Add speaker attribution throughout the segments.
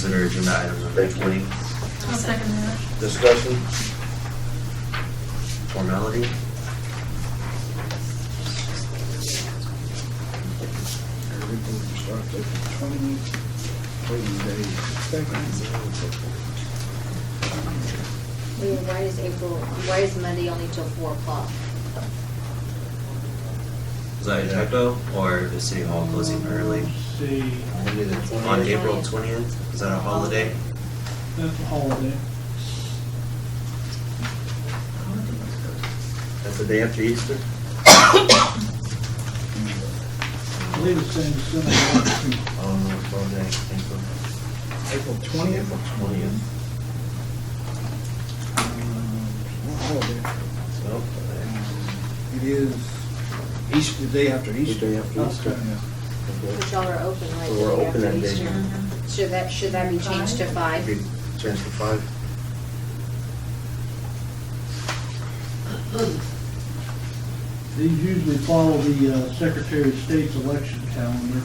Speaker 1: Consider agenda items eventually.
Speaker 2: I'll second that.
Speaker 1: Discussion? Formality?
Speaker 3: Everything will start taking twenty, thirty days.
Speaker 4: Leah, why is April, why is Monday only till four o'clock?
Speaker 1: Is that a typo or is City Hall closing early?
Speaker 5: See,
Speaker 1: Maybe the- On April twentieth, is that a holiday?
Speaker 5: that's a holiday.
Speaker 1: That's the day after Easter?
Speaker 5: I believe it's saying December nineteenth.
Speaker 1: Oh, no, it's all day, thank
Speaker 3: April
Speaker 1: you.
Speaker 3: twentieth?
Speaker 1: April twentieth.
Speaker 5: Uh, oh,
Speaker 1: So,
Speaker 3: It is Easter, the day after Easter.
Speaker 6: day after Easter.
Speaker 3: Yeah.
Speaker 4: But y'all are open, right?
Speaker 6: So
Speaker 4: the
Speaker 6: we're
Speaker 4: day after
Speaker 6: open that day.
Speaker 4: Easter.
Speaker 7: Mm-hmm.
Speaker 4: Should that, should that be changed to five?
Speaker 6: Maybe change to five.
Speaker 5: These usually follow the uh, Secretary of State's election calendar.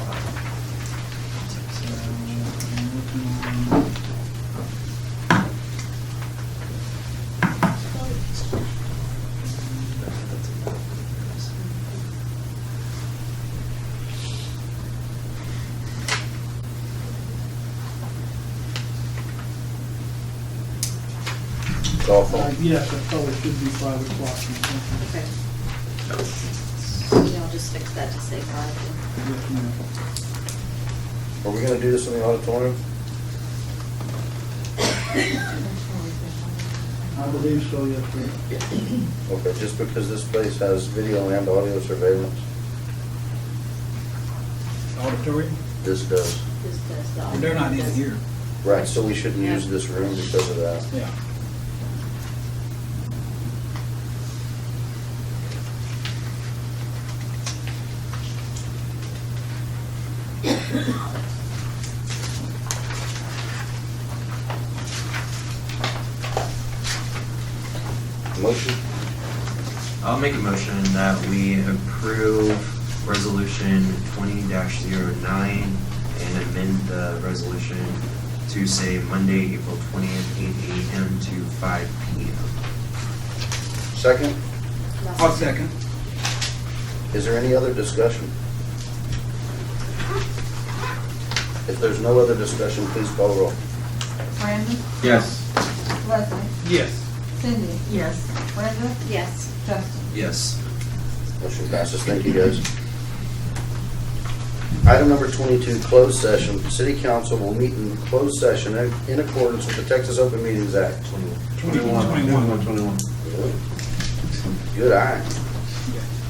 Speaker 5: Uh, I'm looking on-
Speaker 6: It's
Speaker 5: Uh, Yes, I thought it should be five o'clock or something.
Speaker 4: Okay. Y'all just fix that to say five.
Speaker 5: Yes, ma'am.
Speaker 6: Are we gonna do this in the auditorium?
Speaker 5: I believe so, yes, sir.
Speaker 6: Okay, just because this place has video and audio surveillance,
Speaker 3: Auditorium?
Speaker 6: this does.
Speaker 4: This does the-
Speaker 3: They're not in here.
Speaker 6: Right, so we shouldn't use this room because of that.
Speaker 3: Yeah.
Speaker 6: Motion?
Speaker 1: I'll make a motion that we approve resolution twenty 9 and amend the resolution to say Monday, April twentieth, eight AM to five PM.
Speaker 6: Second,
Speaker 3: I'll second.
Speaker 6: is there any other discussion? If there's no other discussion, please call roll.
Speaker 7: Brandon?
Speaker 1: Yes.
Speaker 7: Leslie?
Speaker 3: Yes.
Speaker 7: Cindy? Yes. Brenda?
Speaker 4: Yes.
Speaker 7: Justin?
Speaker 1: Yes.
Speaker 6: Motion passes, thank you guys. Item number 22, closed session. City council will meet in closed session in in accordance with the Texas Open Meetings Act.
Speaker 3: Twenty-one. Twenty-one.
Speaker 6: Good eye.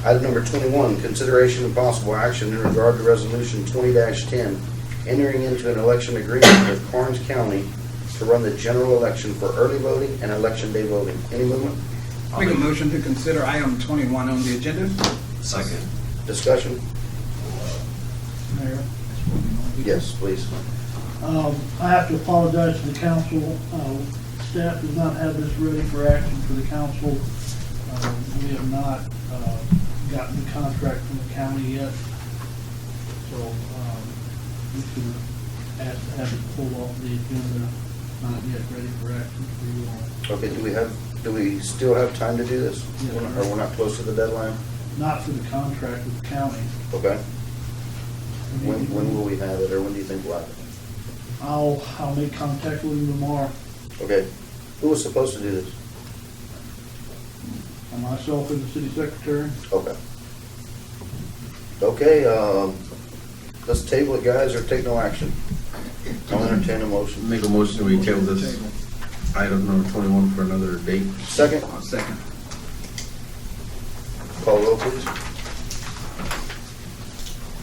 Speaker 6: Item number 21, consideration and possible action in regard to Resolution 20-10, entering into an election agreement with Karnes County to run the general election for early voting and election day voting. Any movement?
Speaker 3: Make a motion to consider item twenty-one on the agenda?
Speaker 1: Second.
Speaker 6: Discussion?
Speaker 5: Mayor.
Speaker 6: Yes, please.
Speaker 5: Um, I have to apologize to the council. Uh, Staff does not have this ready for action for the council. Uh, We have not uh, gotten the contract from the county yet. So um, we can ask to have it pulled off the agenda, not yet ready for action for you all.
Speaker 6: Okay, do we have, do we still have time to do this? We're not- Or we're not close to the deadline?
Speaker 5: Not for the contract with the county.
Speaker 6: Okay. When, when will we have it, or when do you think we'll have it?
Speaker 5: I'll, I'll make contact with him tomorrow.
Speaker 6: Okay. Who was supposed to do this?
Speaker 5: And myself and the city secretary.
Speaker 6: Okay. Okay, um, let's table it, guys, or take no action. I'll entertain a motion.
Speaker 8: Make a motion, we table this
Speaker 3: Table.
Speaker 8: item number twenty-one for another date.
Speaker 6: Second,
Speaker 3: I'll second.
Speaker 6: call roll, please.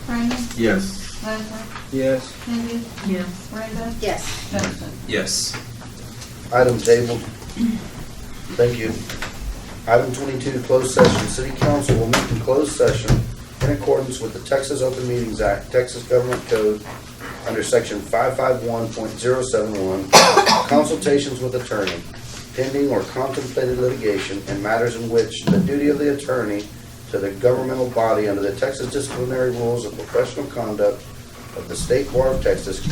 Speaker 7: Brandon?
Speaker 8: Yes.
Speaker 7: Leslie?
Speaker 3: Yes.
Speaker 7: Cindy? Yes. Brenda?
Speaker 4: Yes.
Speaker 7: Justin?
Speaker 1: Yes.
Speaker 6: Item tabled. Thank you. Item twenty-two, closed session. City council will meet in closed session in accordance with the Texas Open Meetings Act, Texas Government Code, under section five-five-one point zero-seven-one, consultations with attorney, pending or contemplated litigation and matters in which the duty of the attorney to the governmental body under the Texas disciplinary rules of professional conduct of the State Board of Texas